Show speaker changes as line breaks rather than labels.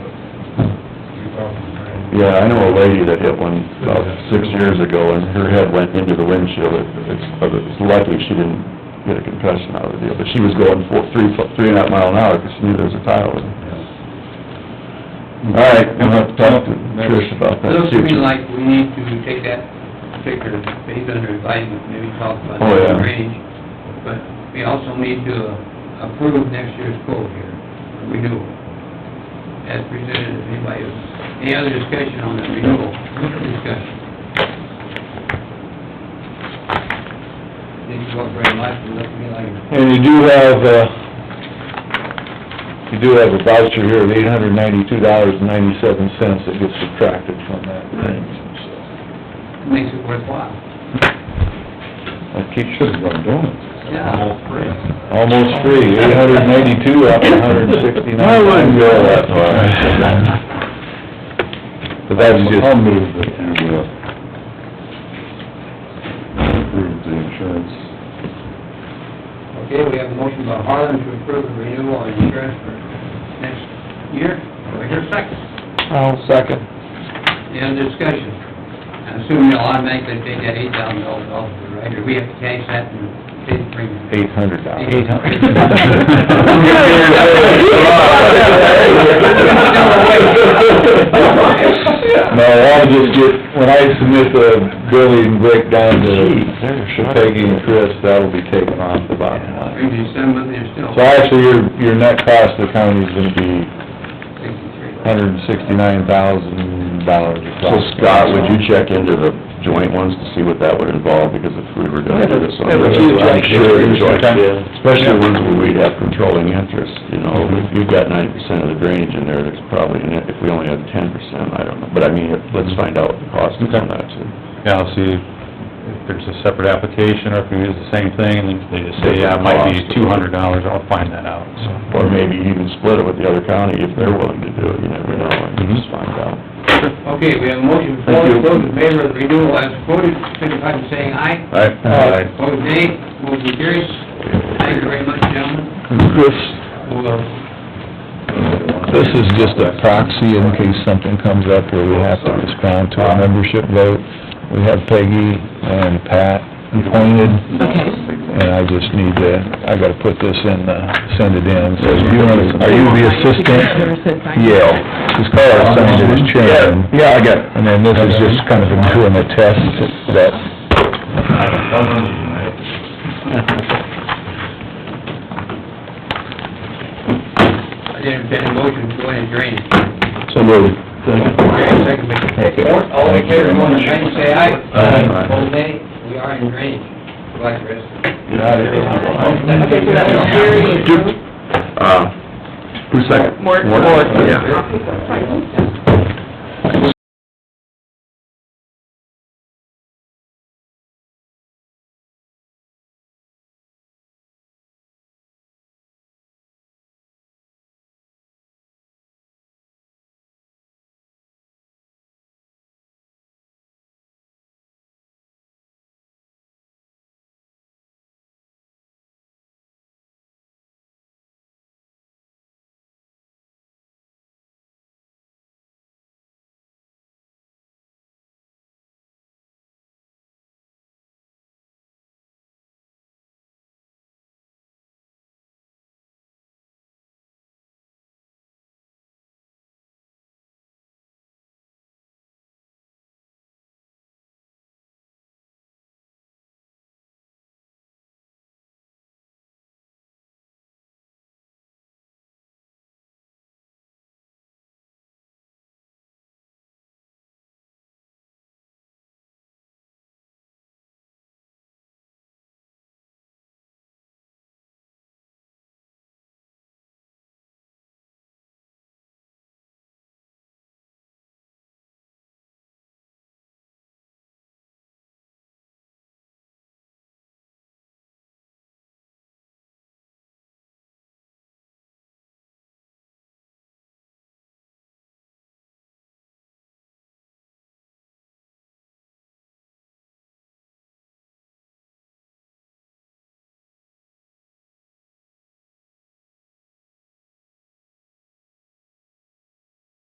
right.
Yeah, I know a lady that hit one about six years ago, and her head went into the windshield. It- It's but it's lucky she didn't get a concussion out of the deal, but she was going for three, three and a half mile an hour, because she knew there was a tile in it. All right, I'm gonna have to talk to Trish about that.
Looks to me
future.
like we need to take that figure, he's under advisement, maybe talk about
Oh, yeah.
the range. But we also need to uh, approve next year's quote here, renewal. As presented, if anybody, any other discussion on the renewal, discussion? Didn't go up very much, it looked to me like,
And you do have, uh, you do have a voucher here of eight hundred ninety-two dollars and ninety-seven cents that gets subtracted from that thing, so.
it makes it worthwhile.
That keeps you from doing it.
Yeah.
Almost free, eight hundred ninety-two out of hundred and sixty-nine. I wouldn't go that far. But that's just. I'll move that you, approve the insurance.
Okay, we have a motion by Harland to approve the renewal of insurance for next year. Do I hear a second?
I'll second.
Any other discussion? I assume you'll automatically take that eight thousand dollars off the rate, or we have to cash that and pay the premium.
Eight hundred dollars.
Eight hundred.
No, I'll just get, when I submit the billing breakdown to to Peggy and Chris, that'll be taken off the bottom line.
Premium settlement, there's still
So actually, your, your net cost to the county is gonna be
sixty-three.
hundred and sixty-nine thousand dollars.
So Scott, would you check into the joint ones to see what that would involve, because if we were gonna do this on the
Yeah, but you
regular, I'm
check
sure
it.
the joint,
Yeah.
especially the ones where we'd have controlling interest, you know, if you've got ninety percent of the drainage in there, there's probably, an- if we only have ten percent, I don't know, but I mean, if- let's find out what the cost is on that too.
Yeah, I'll see if there's a separate application, or if we use the same thing, and they just say, yeah, it might be two hundred dollars, I'll find that out, so.
Or maybe even split it with the other county if they're willing to do it, you never know, and just find out.
Okay, we have a motion before us, those in favor of the renewal as quoted, signify by saying aye.
Aye.
Opposed, nay. Motion carries. Thank you very much, gentlemen.
Chris,
We'll
this is just a proxy in case something comes up where we have to respond to a membership vote. We have Peggy and Pat appointed, and I just need to, I gotta put this in, uh, send it in. So you wanna- Are you the assistant? Yeah, just call her assigned as chairman. Yeah, I got it. And then this is just kind of a, doing a test that...
I didn't intend a motion to go in and drain it.
So moved.
Okay, second by Mr. Ford, all in favor, go in and drain, say aye.
Aye.
Opposed, nay. We are in drainage. Go ahead, Chris.
Uh, who's second?
Mort.
Yeah.